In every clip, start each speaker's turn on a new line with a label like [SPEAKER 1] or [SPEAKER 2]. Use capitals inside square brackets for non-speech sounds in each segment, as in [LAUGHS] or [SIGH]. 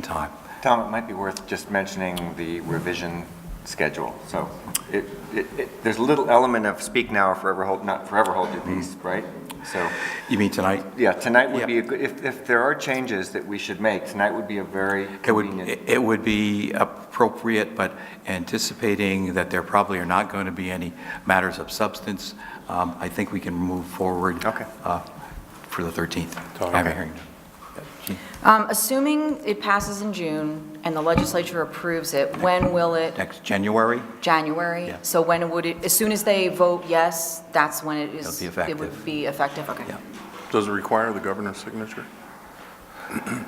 [SPEAKER 1] time.
[SPEAKER 2] Tom, it might be worth just mentioning the revision schedule. So it, it, it- there's a little element of speak now or forever hold, not forever hold your peace, right? So,
[SPEAKER 1] You mean tonight?
[SPEAKER 2] Mm-hmm. yeah, tonight would be a good, if, if there are changes that we should make, tonight would be a very
[SPEAKER 1] It would,
[SPEAKER 2] convenient.
[SPEAKER 1] it would be appropriate, but anticipating that there probably are not going to be any matters of substance, um, I think we can move forward.
[SPEAKER 2] Okay.
[SPEAKER 1] uh, For the 13th. I have a
[SPEAKER 2] Okay.
[SPEAKER 1] hearing.
[SPEAKER 3] Um, Assuming it passes in June and the legislature approves it, when will it?
[SPEAKER 1] Next January,
[SPEAKER 3] January?
[SPEAKER 1] Yeah.
[SPEAKER 3] So when would it, as soon as they vote yes, that's when it is?
[SPEAKER 1] It'll be
[SPEAKER 3] It
[SPEAKER 1] effective.
[SPEAKER 3] would be effective, okay.
[SPEAKER 1] yeah.
[SPEAKER 4] Does it require the governor's signature? [CLEARS THROAT]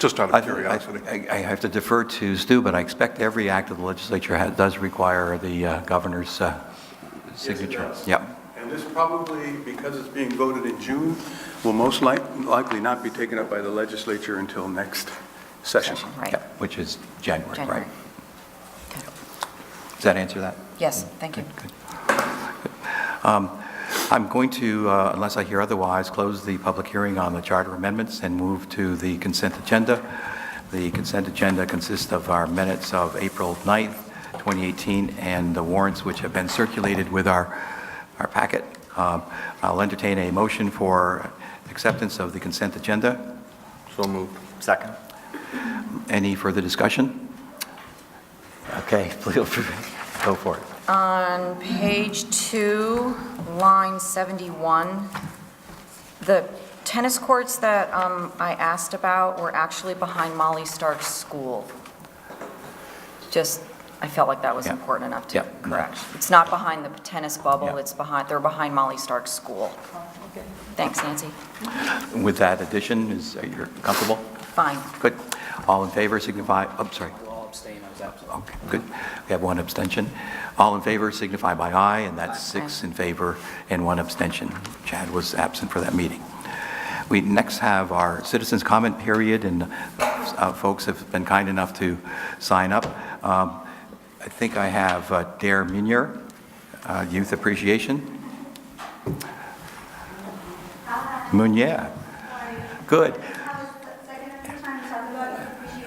[SPEAKER 4] Just out
[SPEAKER 1] I
[SPEAKER 4] of curiosity.
[SPEAKER 1] I- I have to defer to Stu, but I expect every act of the legislature ha- does require the uh, governor's uh, signature.
[SPEAKER 5] does.
[SPEAKER 1] Yep.
[SPEAKER 5] And this probably, because it's being voted in June, will most like- likely not be taken up by the legislature until next session.
[SPEAKER 3] Session, Right,
[SPEAKER 1] Yep, which is January,
[SPEAKER 3] January.
[SPEAKER 1] right?
[SPEAKER 3] Okay.
[SPEAKER 1] Does that answer that?
[SPEAKER 3] Yes, thank you.
[SPEAKER 1] Um, I'm going to, uh, unless I hear otherwise, close the public hearing on the charter amendments and move to the consent agenda. The consent agenda consists of our minutes of April 9th, 2018, and the warrants which have been circulated with our, our packet. Um, I'll entertain a motion for acceptance of the consent agenda.
[SPEAKER 4] So moved.
[SPEAKER 2] Second.
[SPEAKER 1] Any further discussion? Okay, [LAUGHS] please, go for it.
[SPEAKER 3] On page two, line 71, the tennis courts that um, I asked about were actually behind Molly Stark's school. Just, I felt like that was
[SPEAKER 1] Yeah.
[SPEAKER 3] important enough
[SPEAKER 1] Yeah.
[SPEAKER 3] to correct. It's not behind the tennis bubble,
[SPEAKER 1] Yeah.
[SPEAKER 3] it's behind, they're behind Molly Stark's school. Thanks, Nancy.
[SPEAKER 1] With that addition, is, are you comfortable?
[SPEAKER 3] Fine.
[SPEAKER 1] Good. All in favor signify, oh, I'm sorry.
[SPEAKER 6] I'll abstain, I was absent.
[SPEAKER 1] Okay, good. We have one abstention. All in favor signify by aye, and that's six in favor and one abstention. Chad was absent for that meeting. We next have our citizens' comment period, and uh, folks have been kind enough to sign up. Um, I think I have uh, Dare Munier, uh, Youth Appreciation.
[SPEAKER 7] Uh,
[SPEAKER 1] Munier, good.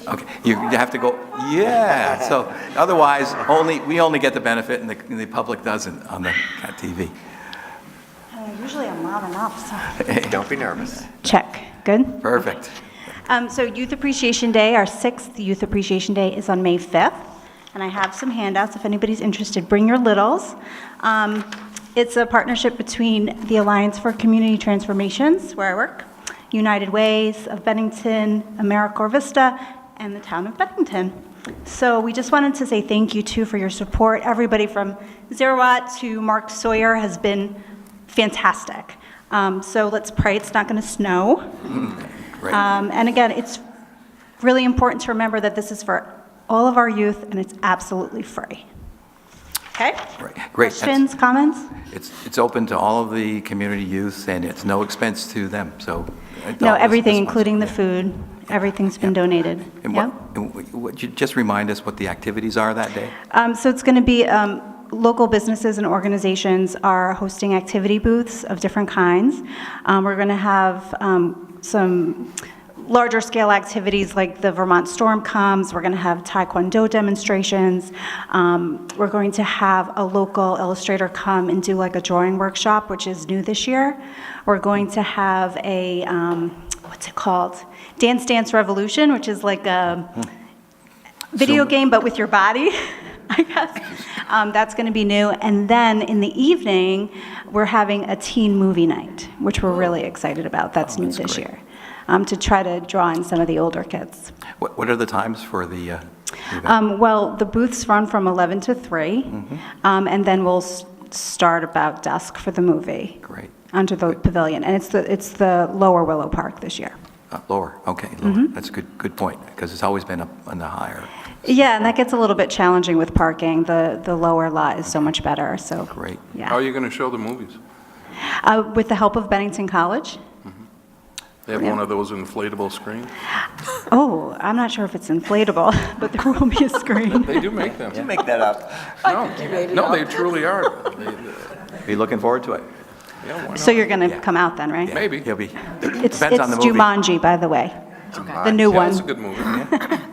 [SPEAKER 1] Okay, you you have to go, yeah, so otherwise, only, we only get the benefit and the, and the public doesn't on the cat TV.
[SPEAKER 7] Uh, Usually I'm loud enough, so.
[SPEAKER 2] Don't be nervous.
[SPEAKER 7] Check, good.
[SPEAKER 1] [LAUGHS] Perfect.
[SPEAKER 7] Um, So Youth Appreciation Day, our sixth Youth Appreciation Day is on May 5th, and I have some handouts if anybody's interested. Bring your littles. Um, It's a partnership between the Alliance for Community Transformations, where I work, United Ways of Bennington, AmeriCorps Vista, and the town of Bennington. So we just wanted to say thank you, too, for your support. Everybody from Zerawat to Mark Sawyer has been fantastic. Um, So let's pray it's not going to snow.
[SPEAKER 1] Great.
[SPEAKER 7] Um, And again, it's really important to remember that this is for all of our youth, and it's absolutely free. Okay?
[SPEAKER 1] Right. Great. That's-
[SPEAKER 7] Questions, comments?
[SPEAKER 1] It's, it's open to all of the community youth and it's no expense to them, so.
[SPEAKER 7] No,
[SPEAKER 1] adult is
[SPEAKER 7] everything,
[SPEAKER 1] responsible.
[SPEAKER 7] including the
[SPEAKER 1] Yeah.
[SPEAKER 7] food, everything's been donated.
[SPEAKER 1] And
[SPEAKER 7] Yeah?
[SPEAKER 1] what, and what- what- you- just remind us what the activities are that day?
[SPEAKER 7] Um, So it's going to be, um, local businesses and organizations are hosting activity booths of different kinds. Um, We're going to have um, some larger-scale activities like the Vermont Storm Comes, we're going to have Taekwondo demonstrations, Um, we're going to have a local illustrator come and do like a drawing workshop, which is new this year. We're going to have a, um, what's it called? Dance Dance Revolution, which is like a video
[SPEAKER 1] So-
[SPEAKER 7] game, but with your body, [LAUGHS] I guess. Um, that's going to be new. And then in the evening, we're having a teen movie night, which we're really excited about. That's new this
[SPEAKER 1] Oh, great.
[SPEAKER 7] year um, to try to draw in some of the older kids.
[SPEAKER 1] What, what are the times for the, uh, the event?
[SPEAKER 7] Um, well, the booths run from 11 to 3,
[SPEAKER 1] Mm-hmm.
[SPEAKER 7] um, and then we'll s- start about dusk for the movie.
[SPEAKER 1] Great.
[SPEAKER 7] Under the pavilion, and it's the it's the Lower Willow Park this year.
[SPEAKER 1] Uh, Lower, okay, lower.
[SPEAKER 7] mm-hmm.
[SPEAKER 1] That's a good, good point, because it's always been up on the higher.
[SPEAKER 7] Yeah, and that gets a little bit challenging with parking. The the lower lot is so much better. So
[SPEAKER 1] Great.
[SPEAKER 7] Yeah.
[SPEAKER 4] How are you going to show the movies?
[SPEAKER 7] Uh, With the help of Bennington College?
[SPEAKER 4] They have
[SPEAKER 7] Yeah.
[SPEAKER 4] one of those inflatable screens?
[SPEAKER 7] Oh, I'm not sure if it's inflatable, [LAUGHS] but there will be a screen.
[SPEAKER 4] They do make them.
[SPEAKER 2] Make that up.
[SPEAKER 4] No, no, they truly are.
[SPEAKER 7] [LAUGHS]
[SPEAKER 4] They- they-
[SPEAKER 1] Be looking forward to it.
[SPEAKER 4] yeah, why
[SPEAKER 7] So
[SPEAKER 4] not?
[SPEAKER 7] you're going
[SPEAKER 1] Yeah.
[SPEAKER 7] to come out then, right?
[SPEAKER 4] Maybe.
[SPEAKER 1] He'll be,
[SPEAKER 7] It's
[SPEAKER 1] depends on the
[SPEAKER 7] it's
[SPEAKER 1] movie.
[SPEAKER 7] Jumanji, by the way.
[SPEAKER 4] It's a
[SPEAKER 3] Okay.
[SPEAKER 2] July.
[SPEAKER 7] The new
[SPEAKER 4] Yeah,
[SPEAKER 7] one.
[SPEAKER 4] it's a good movie.